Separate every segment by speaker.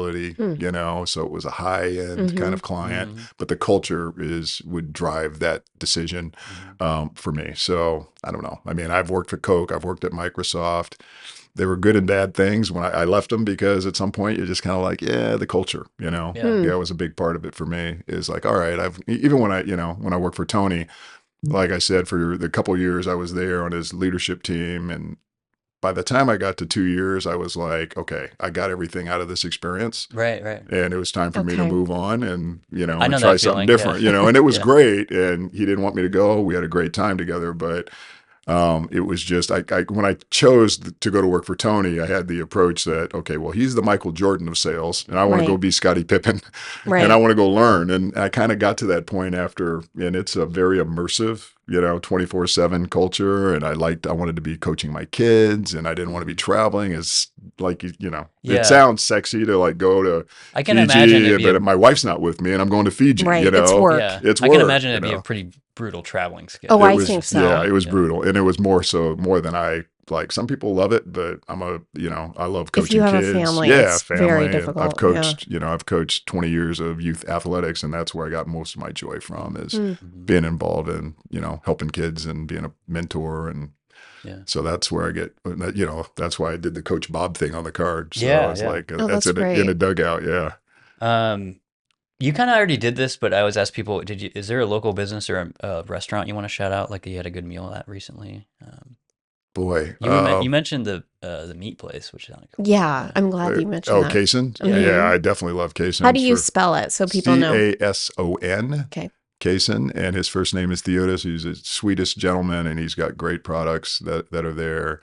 Speaker 1: facility,
Speaker 2: Mm.
Speaker 1: you know, so it was a high end kind
Speaker 2: Mhm.
Speaker 1: of client,
Speaker 3: Mhm.
Speaker 1: but the culture is would drive that decision um, for me. So I don't know. I mean, I've worked for Coke, I've worked at Microsoft. They were good and bad things when I, I left them because at some point you're just kind of like, yeah, the culture, you know,
Speaker 3: Yeah.
Speaker 2: Mm.
Speaker 1: yeah, it was a big part of it for me. Is like, all right, I've e, even when I, you know, when I worked for Tony, like I said, for the couple years I was there on his leadership team, and by the time I got to two years, I was like, okay, I got everything out of this experience,
Speaker 3: Right, right.
Speaker 1: and it was time for me to
Speaker 2: Okay.
Speaker 1: move on and you know
Speaker 3: I
Speaker 1: and
Speaker 3: know
Speaker 1: try
Speaker 3: that
Speaker 1: something
Speaker 3: feeling, yeah.
Speaker 1: different, you know. And it was
Speaker 3: Yeah.
Speaker 1: great, and he didn't want me to go. We had a great time together, but um, it was just I, I when I chose th- to go to work for Tony, I had the approach that okay, well, he's the Michael Jordan of sales, and I want
Speaker 2: Right.
Speaker 1: to go be Scottie Pippen,
Speaker 2: Right.
Speaker 1: and I want to go learn. And I kind of got to that point after, and it's a very immersive, you know, twenty four seven culture. And I liked, I wanted to be coaching my kids, and I didn't want to be traveling. It's like you, you know,
Speaker 3: Yeah.
Speaker 1: it sounds sexy to like go to
Speaker 3: I can imagine
Speaker 1: Fiji,
Speaker 3: it'd be
Speaker 1: but
Speaker 3: a-
Speaker 1: my wife's not with me, and I'm going to Fiji.
Speaker 2: Right,
Speaker 1: You know,
Speaker 2: it's work.
Speaker 3: Yeah,
Speaker 1: It's
Speaker 3: I
Speaker 1: work,
Speaker 3: can imagine
Speaker 1: you
Speaker 3: it'd be
Speaker 1: know.
Speaker 3: a pretty brutal traveling schedule.
Speaker 2: Oh,
Speaker 1: It
Speaker 2: I
Speaker 1: was-
Speaker 2: think so.
Speaker 1: Yeah, it was
Speaker 3: Yeah.
Speaker 1: brutal, and it was more so more than I like. Some people love it, but I'm a you know I love
Speaker 2: If
Speaker 1: coaching
Speaker 2: you have a
Speaker 1: kids.
Speaker 2: family,
Speaker 1: yeah,
Speaker 2: it's very
Speaker 1: and I've
Speaker 2: difficult, yeah.
Speaker 1: coached you know I've coached 20 years of youth athletics, and that's where I got most of my joy from is
Speaker 2: Mm.
Speaker 3: Mhm.
Speaker 1: being involved in you know helping kids and being a mentor, and
Speaker 3: Yeah.
Speaker 1: so that's where I get uh, you know that's why I did the Coach Bob thing on the card. So
Speaker 3: Yeah,
Speaker 1: I was
Speaker 3: yeah.
Speaker 1: like uh,
Speaker 2: Oh,
Speaker 1: that's,
Speaker 2: that's
Speaker 1: in, a, in
Speaker 2: great.
Speaker 1: a dugout, yeah.
Speaker 3: Um, you kind of already did this, but I always ask people: Did you? Is there a local business or a, a restaurant you want to shout out? Like you had a good meal at recently. Um,
Speaker 1: Boy,
Speaker 3: you, were men-
Speaker 1: um,
Speaker 3: you mentioned the uh, the meat place, which sounded cool.
Speaker 2: Yeah, I'm glad
Speaker 1: Uh,
Speaker 2: you mentioned
Speaker 1: Oh,
Speaker 2: that.
Speaker 1: Kason?
Speaker 2: Yeah.
Speaker 1: Yeah, I definitely love Kason.
Speaker 2: How do you spell it so people know?
Speaker 1: C A S O N.
Speaker 2: Okay.
Speaker 1: Kason, and his first name is Theodos. He's the sweetest gentleman, and he's got great products that, that are there.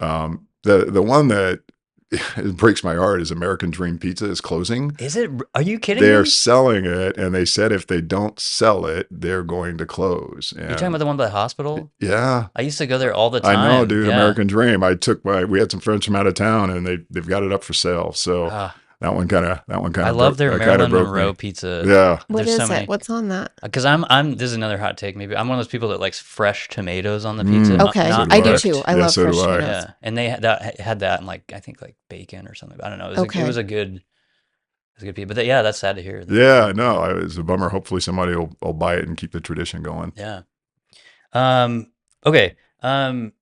Speaker 1: Um, the the one that it breaks my heart is American Dream Pizza is closing.
Speaker 3: Is it? Are you kidding
Speaker 1: They're
Speaker 3: me?
Speaker 1: selling it, and they said if they don't sell it, they're going to close.
Speaker 3: You're talking
Speaker 1: And-
Speaker 3: about the one by the hospital?
Speaker 1: yeah,
Speaker 3: I used to go there all the time.
Speaker 1: I know, dude.
Speaker 3: Yeah.
Speaker 1: American Dream. I took my. We had some friends from out of town, and they they've got it up for sale. So
Speaker 3: Ah,
Speaker 1: that one kind of that one kind
Speaker 3: I
Speaker 1: of
Speaker 3: love their Marilyn Monroe
Speaker 1: rope.
Speaker 3: pizza.
Speaker 1: Yeah.
Speaker 2: What
Speaker 3: There's
Speaker 2: is
Speaker 3: so
Speaker 2: it?
Speaker 3: many-
Speaker 2: What's on that?
Speaker 3: Because I'm, I'm. This is another hot take. Maybe I'm one of those people that likes fresh tomatoes on the
Speaker 1: Mm.
Speaker 3: pizza. not-
Speaker 2: Okay,
Speaker 3: not
Speaker 2: I do
Speaker 3: cooked.
Speaker 2: too. I
Speaker 1: Yeah,
Speaker 2: love
Speaker 1: so do
Speaker 2: fresh
Speaker 1: I.
Speaker 2: tomatoes.
Speaker 3: Yeah, and they had that, had that in like I think like bacon or something. I don't know. It was, a,
Speaker 2: Okay.
Speaker 3: it was a good, it was a good pizza. But that, yeah, that's sad to hear. that-
Speaker 1: Yeah, no, I- it's a bummer. Hopefully, somebody will, will buy it and keep the tradition going.
Speaker 3: yeah. Um. Okay. Um.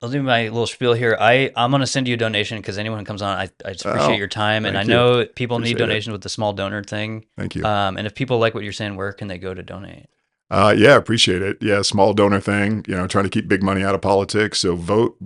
Speaker 3: I'll do my little spiel here. I I'm gonna send you a donation because anyone who comes on, I I just appreciate
Speaker 1: Oh,
Speaker 3: your time, and I
Speaker 1: thank you.
Speaker 3: know people need
Speaker 1: Appreciate it.
Speaker 3: donations with the small donor thing.
Speaker 1: Thank you. Uh,
Speaker 3: Um. And if people like what you're saying, where can they go to donate?
Speaker 1: yeah, appreciate it. Yeah, small donor thing, you know, trying to keep big money out of politics. So vote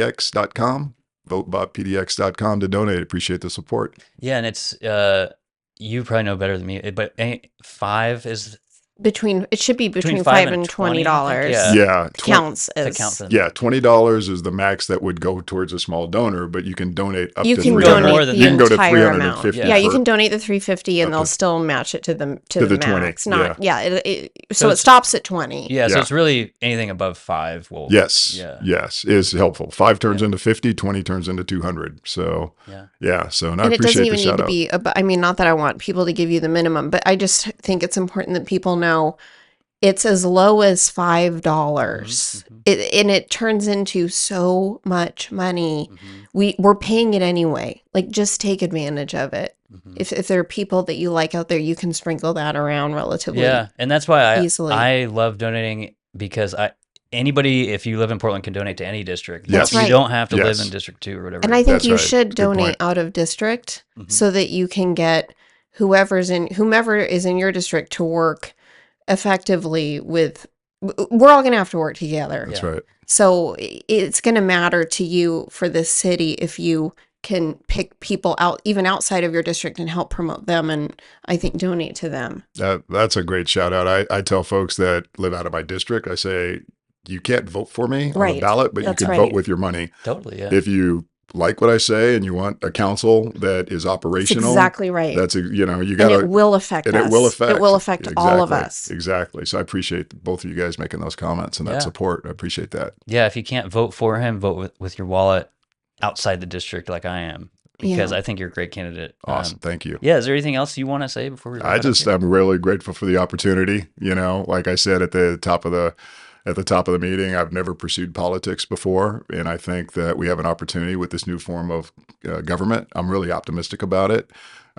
Speaker 1: bobpdx.com, vote bobpdx.com to donate. Appreciate the support.
Speaker 3: Yeah, and it's uh, you probably know better than me, eh, but eh, five is
Speaker 2: Between it should be between,
Speaker 3: five
Speaker 2: five
Speaker 3: and
Speaker 2: and twenty
Speaker 3: 20, I think,
Speaker 2: dollars.
Speaker 3: yeah.
Speaker 1: Yeah. twen-
Speaker 2: Counts
Speaker 3: the
Speaker 2: as
Speaker 3: Uh, count for them.
Speaker 1: Yeah, twenty dollars is the max that would go towards a small donor, but you can donate up
Speaker 2: you
Speaker 1: to
Speaker 2: can
Speaker 1: three
Speaker 3: $300.
Speaker 2: donate
Speaker 3: More
Speaker 1: hundred.
Speaker 2: the
Speaker 3: than that. You can
Speaker 1: go to
Speaker 2: entire amount.
Speaker 1: $350
Speaker 2: Yeah, you
Speaker 1: for-
Speaker 2: can donate the 350
Speaker 1: up
Speaker 2: and they'll
Speaker 1: to-
Speaker 2: still match it to the to,
Speaker 1: to
Speaker 2: the,
Speaker 1: the 20,
Speaker 2: max. Not yeah, it, it, so,
Speaker 3: So
Speaker 2: it
Speaker 3: it's-
Speaker 2: stops at 20.
Speaker 3: Yeah, so
Speaker 1: Yeah.
Speaker 3: it's really anything above five will
Speaker 1: Yes.
Speaker 3: Yeah.
Speaker 1: Yes, is helpful. Five turns
Speaker 3: Yeah.
Speaker 1: into 50, 20 turns into two hundred. So
Speaker 3: Yeah.
Speaker 1: yeah, so and I
Speaker 2: and it doesn't
Speaker 1: appreciate
Speaker 2: even
Speaker 1: the
Speaker 2: need
Speaker 1: shout
Speaker 2: to
Speaker 1: out.
Speaker 2: be ab- I mean not that I want people to give you the minimum, but I just think it's important that people know it's as low as $5.
Speaker 1: Mm-hmm.
Speaker 2: dollars
Speaker 3: Mhm, mhm,
Speaker 2: It, and it turns into so much money.
Speaker 3: mhm,
Speaker 2: We we're paying it anyway. Like just take advantage of it.
Speaker 1: Mm-hmm.
Speaker 3: mhm.
Speaker 2: If if there are people that you like out there, you can sprinkle that around relatively.
Speaker 3: yeah, and that's why I
Speaker 2: easily.
Speaker 3: I love donating because I anybody if you live in Portland can donate to any district.
Speaker 1: That's
Speaker 3: you
Speaker 2: right.
Speaker 3: don't have to
Speaker 1: Yes.
Speaker 3: live in District Two or whatever.
Speaker 2: And I think
Speaker 1: That's
Speaker 2: you
Speaker 1: right.
Speaker 2: should
Speaker 1: Good point.
Speaker 2: donate out of district
Speaker 3: Mhm.
Speaker 2: so that you can get whoever's in whomever is in your district to work effectively with w- we're all going to have to work together.
Speaker 1: That's
Speaker 3: Yeah.
Speaker 1: right.
Speaker 2: So i- it's going to matter to you for this city if you can pick people out even outside of your district and help promote them and I think donate to them.
Speaker 1: That that's a great shout out. I, I tell folks that live out of my district, I say you can't vote for me on the
Speaker 2: Right.
Speaker 1: ballot, but
Speaker 2: That's
Speaker 1: you can
Speaker 2: right.
Speaker 1: vote with your money.
Speaker 3: totally. Yeah.
Speaker 1: If you like what I say and you want a council that is
Speaker 2: That's
Speaker 1: operational,
Speaker 2: exactly right.
Speaker 1: that's a you know, you
Speaker 2: and
Speaker 1: gotta
Speaker 2: it will affect
Speaker 1: and
Speaker 2: us.
Speaker 1: it will affect
Speaker 2: It will affect all of
Speaker 1: Exactly.
Speaker 2: us.
Speaker 1: Exactly. So I appreciate both of you guys making those comments and that
Speaker 3: Yeah.
Speaker 1: support. I appreciate that.
Speaker 3: yeah, if you can't vote for him, vote with, with your wallet outside the district like I am because
Speaker 2: Yeah.
Speaker 3: I think you're a great candidate. Um,
Speaker 1: Awesome. Thank you.
Speaker 3: yeah, is there anything else you want to say before we? wrap
Speaker 1: I
Speaker 3: it up
Speaker 1: just
Speaker 3: here?
Speaker 1: I'm really grateful for the opportunity. You know, like I said at the top of the at the top of the meeting, I've never pursued politics before, and I think that we have an opportunity with this new form of uh, government. I'm really optimistic about it.